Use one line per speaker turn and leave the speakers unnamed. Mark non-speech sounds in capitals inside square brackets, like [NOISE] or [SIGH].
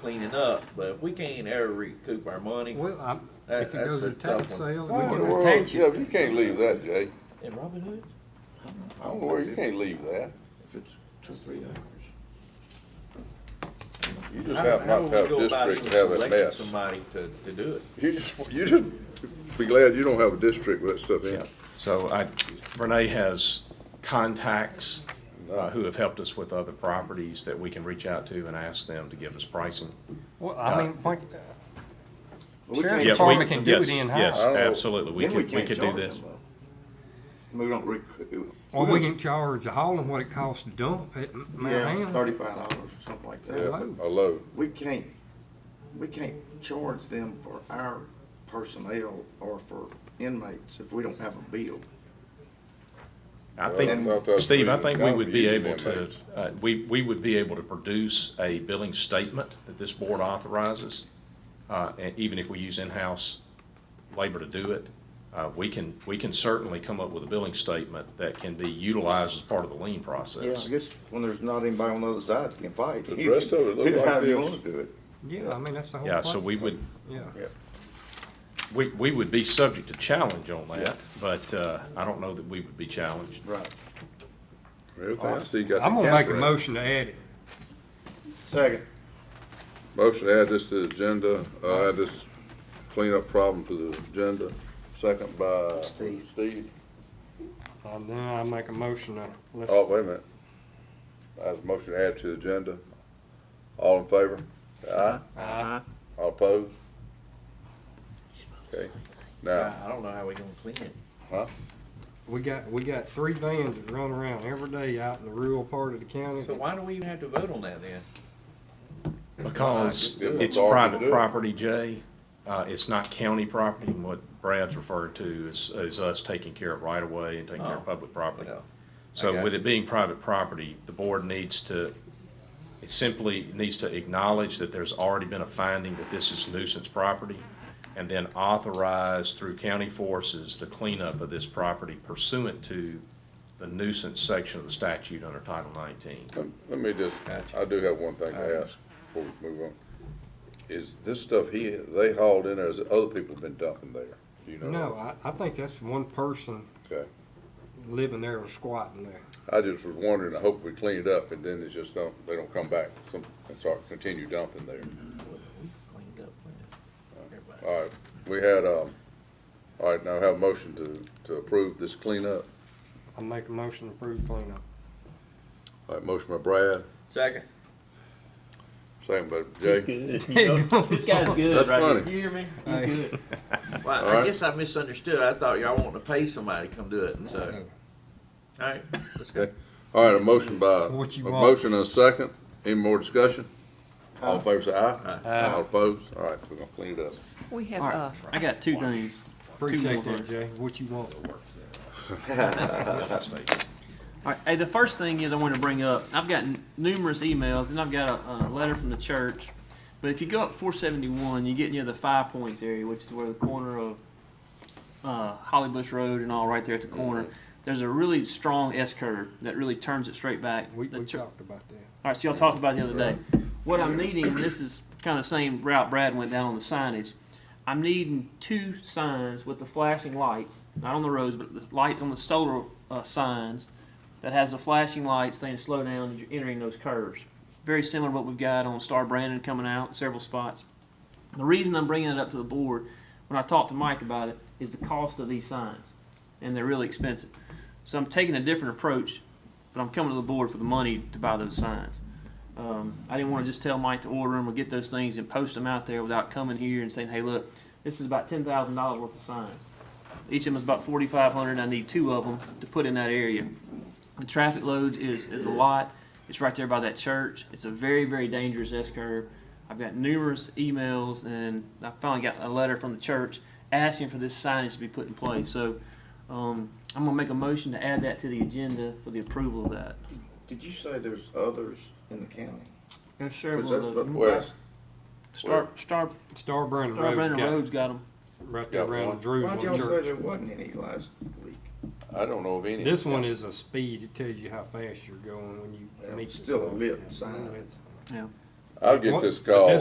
cleaning up, but if we can't ever recoup our money,
Well, I,
That-
if it
that's
goes
a
to tax
tough one.
sale,
Oh,
we
in the
can
world,
attach
yeah,
it.
you can't leave that, Jay.
in Robin Hood,
I don't worry, you can't leave that.
if it's two, three acres.
You just
How-
happen
how
not
do
to have
we go
a
about
district and
even
have a
selecting
mess.
Somebody to, to do it.
You just, you just be glad you don't have a district with that stuff in
Yeah,
it.
so I, Renee has contacts uh, who have helped us with other properties that we can reach out to and ask them to give us pricing.
Well, I mean, like,
We
Sheriff's
Yeah,
can't
we-
Department can do it
yes,
in-house.
Yes, absolutely, we
Oh, then
could,
we
we
can't
could do
charge
this.
them, though. We don't recoup.
or we can charge the haul and what it costs to dump it,
Yeah,
man.
thirty-five dollars or something like that.
Yeah, a load.
We can't, we can't charge them for our personnel or for inmates if we don't have a bill.
I
I thought that
think,
was
Steve, I
pretty-
think
that
we
would
would
be
be
easy
able
to
to,
make.
uh, we, we would be able to produce a billing statement that this board authorizes, uh, and even if we use in-house labor to do it. Uh, We can, we can certainly come up with a billing statement that can be utilized as part of the lien
Yeah,
process.
I guess when there's not anybody on the other side that can fight.
The
you
rest
can
of it look
do
like
however you
this.
wanna do it.
Yeah, I mean, that's the whole point.
Yeah, so we would,
Yeah.
We, we would be subject to challenge on that, but uh, I don't know that we would be challenged.
Right.
Everything I see got.
I'm
the
gonna
cap
make a
around it.
motion to add it.
Second.
Motion to add this to the agenda, uh, add this cleanup problem to the agenda. Second by
Steve.
Steve.
Uh, then I make a motion to, let's,
Oh, wait a minute. That was a motion to add to the agenda. All in favor? Aye.
Aye.
All opposed? Okay, now,
I I don't know how we gonna clean it.
we got, we got three vans that run around every day out in the rural part of the county.
So why do we even have to vote on that then?
Because
Give them
it's
authority to do it.
private property, Jay. Uh, It's not county property, and what Brad's referred to is, is us taking care of right-of-way and taking care
Oh.
of public property.
Well, I
So
got
with
you.
it being private property, the board needs to, it simply needs to acknowledge that there's already been a finding that this is nuisance property, and then authorize through county forces the cleanup of this property pursuant to the nuisance section of the statute under Title 19.
[LAUGHS]
let let me just, I do have one thing to ask before we move on. Is this stuff he, they hauled in there, is it other people have been dumping there? Do you know?
No, I, I think that's one person
Okay.
living there or squatting there.
I just was wondering, I hope we clean it up, and then it's just don't, they don't come back some- and start, continue dumping there.
We've cleaned up plenty. Everybody.
All right, we had, um, all right, now have a motion to, to approve this cleanup.
I make a motion to approve [LAUGHS] cleanup.
All right, motion by Brad,
Second,
second by Jay.
This guy's good
That's
right here.
funny.
You hear me? He's good.
well,
All right.
I guess I misunderstood, I thought y'all wanted to pay somebody to come do it, and so. Alright, let's go.
Okay. All right, a motion by, a
What you want.
motion and a second, any more discussion? All in favor say aye.
Aye.
All opposed, all right, we're gonna clean it up.
We have,
All
uh,
right. I got two things.
Appreciate
more
that, Jay. What you want?
All right. Hey, the first thing is I want to bring up. I've gotten numerous emails, and I've got a, a letter from the church. But if you go up 471, you get near the Five Points area, which is where the corner of uh, Holly Bush Road and all right there at the corner. There's a really strong S curve that really turns it straight back.
We,
The
we
chur-
talked about that.
All right, so y'all talked about it the other day. What I'm needing, and this is kind of the same route Brad went down on the signage, I'm needing two signs with the flashing lights, not on the roads, but the lights on the solar uh, signs that has the flashing lights saying slow down as you're entering those curves. Very similar to what we've got on Star Brandon coming out, several spots. The reason I'm bringing it up to the board, when I talked to Mike about it, is the cost of these signs, and they're really expensive. So I'm taking a different approach, but I'm coming to the board for the money to buy those signs. Um, I didn't want to just tell Mike to order them or get those things and post them out there without coming here and saying, hey, look, this is about ten thousand dollars worth of signs. Each of them is about forty-five hundred, I need two of them to put in that area. The traffic load is, is a lot, it's right there by that church, it's a very, very dangerous S-curve. I've got numerous emails and I finally got a letter from the church asking for this signage to be put in place, so, um, I'm gonna make a motion to add that to the agenda for the approval of that.
Did you say there's others in the county?
There's several
Was that-
of those.
Where?
That's-
Star, Star,
Star Brandon
Star
Road's
Brandon
got,
Road's got them.
right there
Got one.
around Drew's
Why'd y'all
one
say
church.
there wasn't any last week?
I don't know of any.
This one is a speed, it tells you how fast you're going when you
Yeah,
meet. the
still a
sign.
lit
Yeah,
sign.
lit.
I'll get this
But
call.